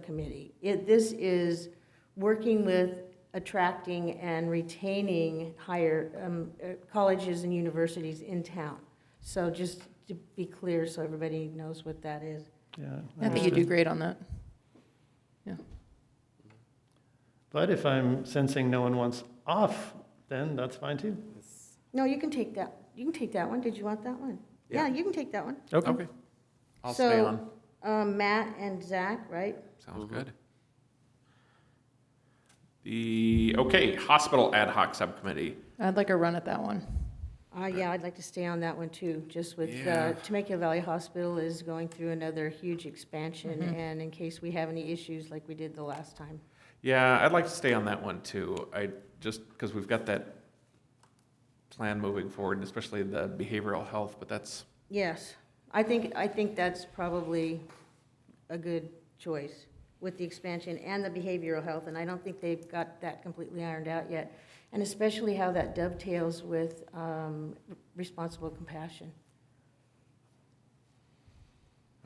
subcommittee. It, this is working with attracting and retaining higher, um, uh, colleges and universities in town. So just to be clear, so everybody knows what that is. Yeah. I think you understood. Um, do great on that. But if I'm sensing no one wants off, then that's fine too. No, you can take that, you can take that one. Did you want that one? Yeah. Yeah, you can take that one. Okay. I'll stay So- on. Um, Matt and Zach, right? Sounds good. The, okay, hospital ad hoc subcommittee. I'd like a run at that one. Uh, yeah, I'd like to stay on that one too, just with, uh, Yeah. Temecula Valley Hospital is going through another huge expansion, and in case we have any issues like we did the last time. Yeah, I'd like to stay on that one too. I just, because we've got that plan moving forward, and especially the behavioral health, but that's, Yes, I think, I think that's probably a good choice with the expansion and the behavioral health, and I don't think they've got that completely ironed out yet. And especially how that dovetails with, um, responsible compassion.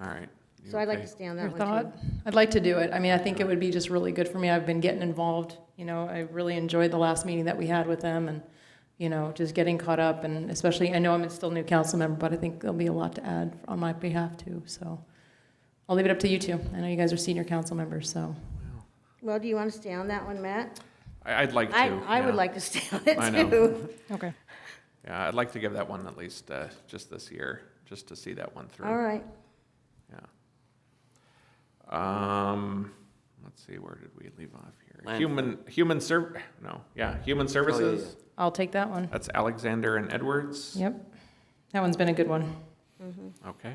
all right. You So I'd like okay? to stay on Your that one too. thought? I'd like to do it. I mean, I think it would be just really good for me. I've been getting involved. You know, I really enjoyed the last meeting that we had with them and, you know, just getting caught up and especially, I know I'm still a new council member, but I think there'll be a lot to add on my behalf too. So I'll leave it up to you two. I know you guys are senior council members, so. Well, do you want to stay on that one, Matt? I- I'd like to. I, I would yeah. like to stay on it I know. too. Okay. Yeah, I'd like to give that one at least, uh, just this year, just to see that one through. All right, Yeah. Um, let's see, where did we leave off here? Landfill. Human, human serv, no, yeah, human services. I'll take that one. That's Alexander and Edwards. Yep. That one's been a good one. Okay.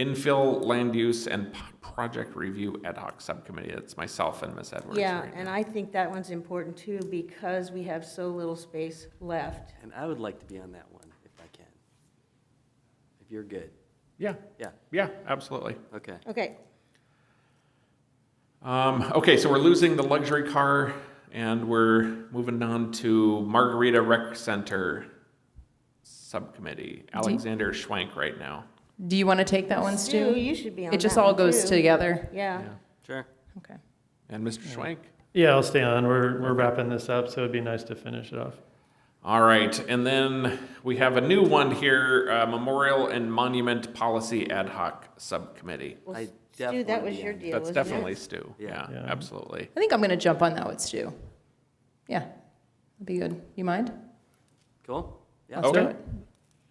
Infill land use and p- project review ad hoc subcommittee. It's myself and Ms. Edwards. yeah, right and now. I think that one's important too, because we have so little space left. And I would like to be on that one if I can. If you're good. Yeah, Yeah, yeah, absolutely. okay. Okay, Um, okay, so we're losing the luxury car and we're moving on to Margarita Rec Center subcommittee. Mm-hmm. Alexander Schwank right now. Do you want to take that one, Stu, Stu? you should be on that It just all one, goes too. together. Yeah, Yeah. Sure. Okay. And Mr. Schwank? Yeah, I'll stay on. We're, we're wrapping this up, so it'd be nice to finish it off. All right, and then we have a new one here, uh, Memorial and Monument Policy Ad Hoc Subcommittee. well, I Stu, that definitely was be your on that. deal, That's wasn't it? definitely Stu. Yeah. Yeah, Yeah. absolutely. I think I'm going to jump on that with Stu. Yeah, that'd be good. You mind? Cool? Yeah. Let's do Okay. it.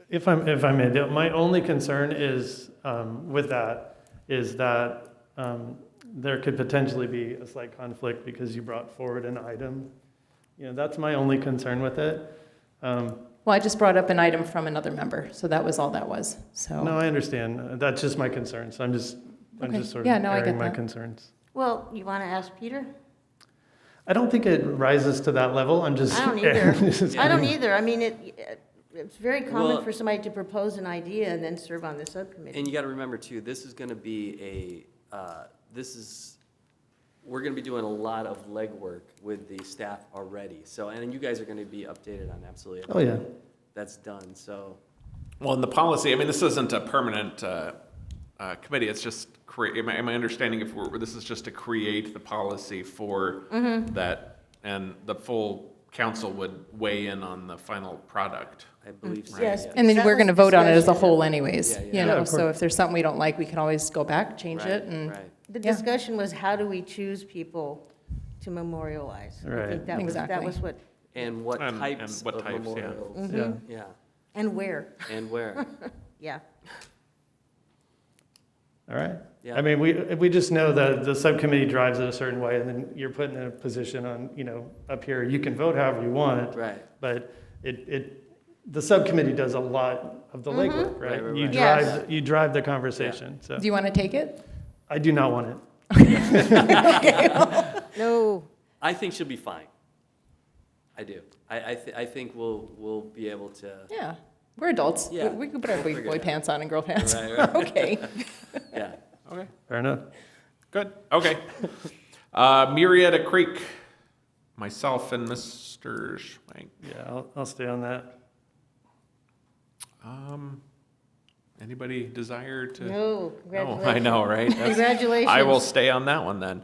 If I'm, if I may, the- my only concern is, um, with that, is that, um, there could potentially be a slight conflict because you brought forward an item. You know, that's my only concern with it. Um, Well, I just brought up an item from another member, so that was all that was. So no, I understand. Uh, That's just my concern, so I'm just, I'm Okay. just sort Yeah, of no, I get airing my that. concerns. Well, you want to ask Peter? I don't think it rises to that level, I'm just. I don't either. This is- I don't either, I mean, it, uh, it's very common Well- for somebody to propose an idea and then serve on the subcommittee. And you got to remember too, this is going to be a, uh, this is, we're going to be doing a lot of legwork with the staff already. So, and you guys are going to be updated on absolutely Oh, yeah. that's done, so. Well, and the policy, I mean, this isn't a permanent uh, uh, committee, it's just, crea- am I, am I understanding if we're, this is just to create the policy for Mm-hmm. that? And the full council would weigh in on the final product. I believe so. Yes. yeah. Mm. and then That we're was going to vote on it as a discussion. whole, anyways. Yeah, yeah. You Yeah, know, of so course. if there's something we don't like, we can always go back, change Right, it, and Right, The Yeah. discussion was how do we choose people to memorialize? I think Right. that was, that Exactly. was what, and what And- and types what of types, yeah. memorials, Mm-hmm. Mm-hmm. Yeah. yeah, and where, and where, yeah. All right. yeah. I mean, we, we just know that the subcommittee drives it a certain way, and then you're put in a position on, you know, up here, you can vote however you want, Right, but it, it, the subcommittee does a lot of the legwork, Right, right? right, You right. Mm-hmm. Yes. drive, you drive the conversation, so do you want to take it? I do not want it. No, I think she'll be fine. I do. I, I, thi- I think we'll, we'll be able to, Yeah, we're adults. We- Yeah. We, can put our big Figure boy it out. pants on and girl pants. Right, right. okay. yeah. Okay, Fair enough. good, okay. Uh, Marietta Creek, myself and Mr. Schwank. Yeah, I'll, I'll stay on that. Um, Anybody desire to? No, No, I congratulations. know, right? That's- I will Congratulations. stay on that one then.